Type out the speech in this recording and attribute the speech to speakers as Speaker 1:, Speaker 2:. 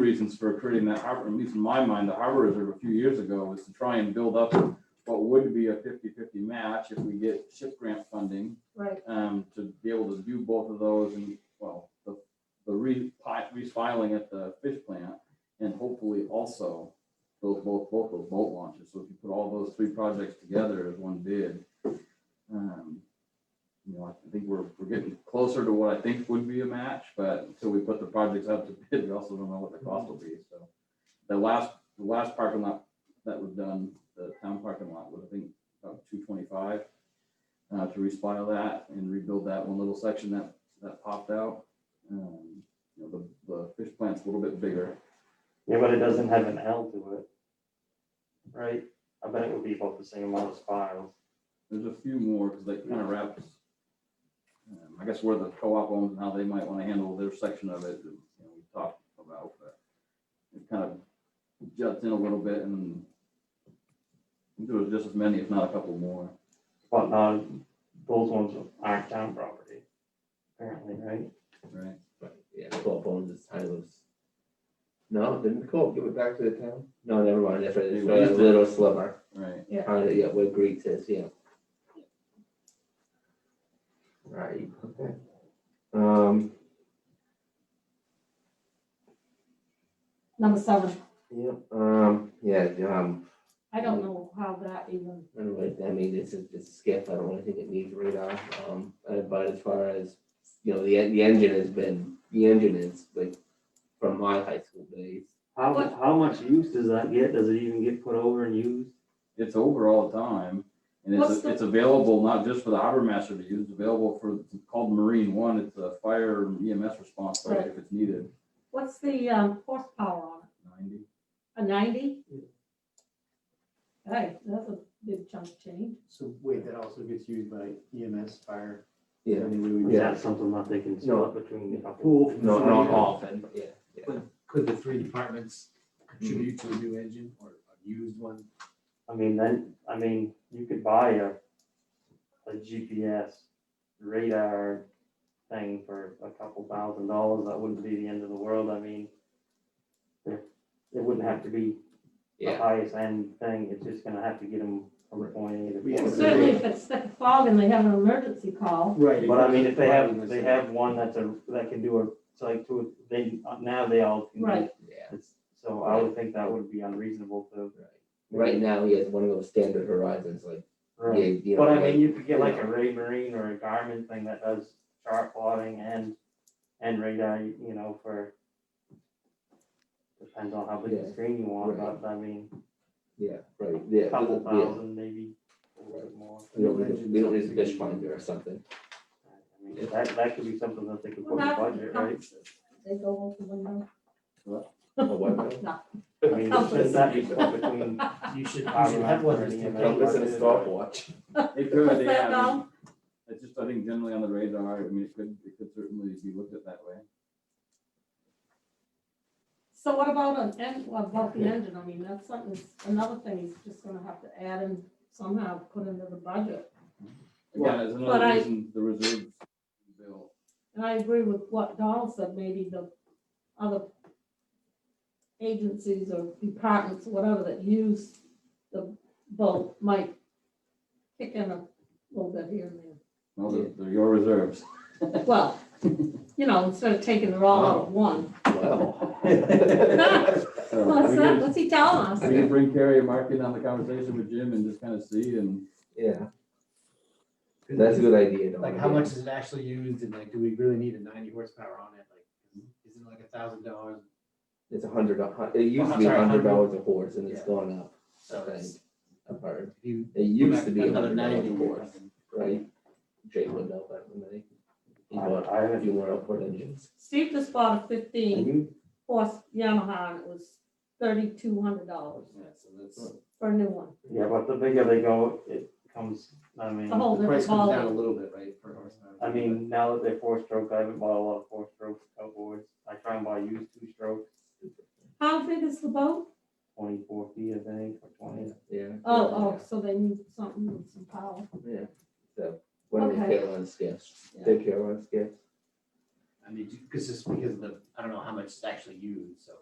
Speaker 1: reasons for creating that harbor, at least in my mind, the harbor reserve a few years ago was to try and build up what would be a 50-50 match if we get ship grant funding,
Speaker 2: Right,
Speaker 1: um, to be able to do both of those and, well, the, the re, pi- refiling at the fish plant and hopefully also those, both, both those boat launches. So if you put all those three projects together as one bid, um, you know, I think we're, we're getting closer to what I think would be a match, but until we put the projects out to bid, we also don't know what the cost will be, so. The last, the last parking lot that was done, the town parking lot was, I think, about two twenty-five. Uh, to respile that and rebuild that one little section that, that popped out. Um, you know, the, the fish plant's a little bit bigger.
Speaker 3: Yeah, but it doesn't have an L to it. Right? I bet it would be about the same amount as files.
Speaker 1: There's a few more, because they kind of wraps. um, I guess where the co-op owns and how they might want to handle their section of it, you know, we talked about, but it kind of juts in a little bit and there was just as many, if not a couple more.
Speaker 3: But not, those ones aren't town property. Apparently, right?
Speaker 1: Right.
Speaker 4: But yeah, co-op owns its titles. No, didn't the co-op give it back to the town? No, never mind, that's right, it's
Speaker 1: They
Speaker 4: a
Speaker 1: used it.
Speaker 4: little sliver.
Speaker 1: Right.
Speaker 4: Uh, yeah, where Greek says, yeah. Right, okay. Um,
Speaker 2: number seven,
Speaker 4: yeah, um, yeah, um,
Speaker 2: I don't know how that even,
Speaker 4: I don't know, I mean, it's a, it's a skiff, I don't really think it needs radar, um, uh, but as far as, you know, the, en- the engine has been, the engine is like from my high school days.
Speaker 3: How,
Speaker 2: What-
Speaker 3: how much use does that get? Does it even get put over and used?
Speaker 1: It's over all the time. And
Speaker 2: What's
Speaker 1: it's,
Speaker 2: the-
Speaker 1: it's available not just for the harbor master to use, it's available for, it's called Marine One, it's a fire EMS response, like, if it's needed.
Speaker 2: what's the um, horsepower on
Speaker 1: Ninety,
Speaker 2: it? A ninety?
Speaker 5: Yeah.
Speaker 2: Hey, that's a big chunk of change.
Speaker 5: So wait, that also gets used by EMS, fire?
Speaker 4: Yeah,
Speaker 5: I mean, we would-
Speaker 3: Is that something that they can
Speaker 4: No.
Speaker 3: split between the couple?
Speaker 5: Pool.
Speaker 4: no, not often, yeah, yeah.
Speaker 5: Could the three departments contribute to a new engine or a used one?
Speaker 3: I mean, then, I mean, you could buy a, a GPS radar thing for a couple thousand dollars. That wouldn't be the end of the world. I mean, there, it wouldn't have to be the
Speaker 4: Yeah,
Speaker 3: highest end thing, it's just gonna have to get them from point A to
Speaker 5: We
Speaker 3: point
Speaker 5: have
Speaker 3: B.
Speaker 2: Certainly if it's thick fog and they have an emergency call,
Speaker 5: Right.
Speaker 3: But I mean, if they have, they have one that's a, that can do a, it's like two, they, now they all. can do-
Speaker 2: Right.
Speaker 4: yeah.
Speaker 3: It's- So I would think that would be unreasonable to.
Speaker 4: Right now, he has one of those standard horizons, like, yeah, you know.
Speaker 3: But I
Speaker 4: like-
Speaker 3: mean, you could get like a Ray Marine or a Garmin thing that does chart plotting and, and radar, you know, for. Depends on how big
Speaker 4: Yeah.
Speaker 3: the screen you want,
Speaker 4: Right.
Speaker 3: but I mean,
Speaker 4: Yeah, right, yeah.
Speaker 3: a couple
Speaker 4: yeah.
Speaker 3: thousand maybe, a little bit more.
Speaker 4: We don't, need a- we don't need a fish finder or something.
Speaker 3: I mean, That, that could be something that they could
Speaker 2: well,
Speaker 3: put in the
Speaker 2: not
Speaker 3: budget, right?
Speaker 2: They go over the window.
Speaker 4: A what?
Speaker 2: No,
Speaker 3: I mean,
Speaker 2: Compass.
Speaker 3: should that be split between,
Speaker 5: You should,
Speaker 3: I
Speaker 5: you should have one.
Speaker 3: remember
Speaker 5: that's
Speaker 3: any of those.
Speaker 5: compatible
Speaker 4: Compass and a
Speaker 5: with-
Speaker 4: stopwatch.
Speaker 1: They could,
Speaker 2: What's
Speaker 1: yeah,
Speaker 2: that
Speaker 1: I mean,
Speaker 2: now?
Speaker 1: It's just, I think generally on the radar, I mean, it could, it could certainly be looked at that way.
Speaker 2: So what about an en, well, about the engine? I mean, that's something, another thing he's just gonna have to add and somehow put into the budget.
Speaker 1: Again, it's
Speaker 2: But
Speaker 1: another
Speaker 2: I-
Speaker 1: reason the reserve bill,
Speaker 2: And I agree with what Donald said, maybe the other agencies or departments, whatever, that use the boat might kick in a little bit here and
Speaker 1: no, they're, they're your reserves.
Speaker 2: there. Well, you know, instead of taking it all out of one.
Speaker 4: Wow.
Speaker 1: So
Speaker 2: What's
Speaker 1: we
Speaker 2: that,
Speaker 1: can-
Speaker 2: what's he telling us?
Speaker 1: we can bring Carrie and Mark in on the conversation with Jim and just kind of see and,
Speaker 4: Yeah, that's a good idea. Dawn,
Speaker 5: Like, how
Speaker 4: yeah.
Speaker 5: much is it actually used and like, do we really need a ninety horsepower on it? Like, isn't it like a thousand dollars?
Speaker 4: It's a hundred, do- hun- it used to be a
Speaker 5: sorry,
Speaker 4: hundred
Speaker 5: hundred.
Speaker 4: dollars a horse and it's
Speaker 5: Yeah.
Speaker 4: gone up, I
Speaker 5: So
Speaker 4: think.
Speaker 5: it's-
Speaker 4: I've heard.
Speaker 5: if you.
Speaker 4: It used to be a
Speaker 5: Another
Speaker 4: hundred dollars
Speaker 5: ninety
Speaker 4: a
Speaker 5: or
Speaker 4: horse,
Speaker 5: something.
Speaker 4: right? Jay would know that, wouldn't he? He bought
Speaker 3: I, I
Speaker 4: a
Speaker 3: haven't,
Speaker 4: few more outboard engines.
Speaker 2: Steve just bought a fifteen
Speaker 3: you,
Speaker 2: horse Yamaha, and it was thirty-two hundred dollars
Speaker 5: Yeah, so that's,
Speaker 2: for a new one.
Speaker 3: yeah, but the bigger they go, it comes, I mean,
Speaker 2: The whole
Speaker 5: the price
Speaker 2: different
Speaker 5: comes down a
Speaker 2: ballgame.
Speaker 5: little bit, right, per horsepower?
Speaker 3: I mean, now that they're four stroke, I haven't bought a lot of four stroke outboards. I try and buy used two stroke,
Speaker 2: How big is the boat?
Speaker 3: twenty-four feet, I think, or twenty.
Speaker 4: Yeah.
Speaker 2: Oh, oh, so they need something with some power.
Speaker 4: Yeah, so, one of the
Speaker 2: Okay.
Speaker 4: Carolina skiffs,
Speaker 2: Yeah.
Speaker 4: the Carolina skiffs.
Speaker 5: I mean, because just because of the, I don't know how much is actually used, so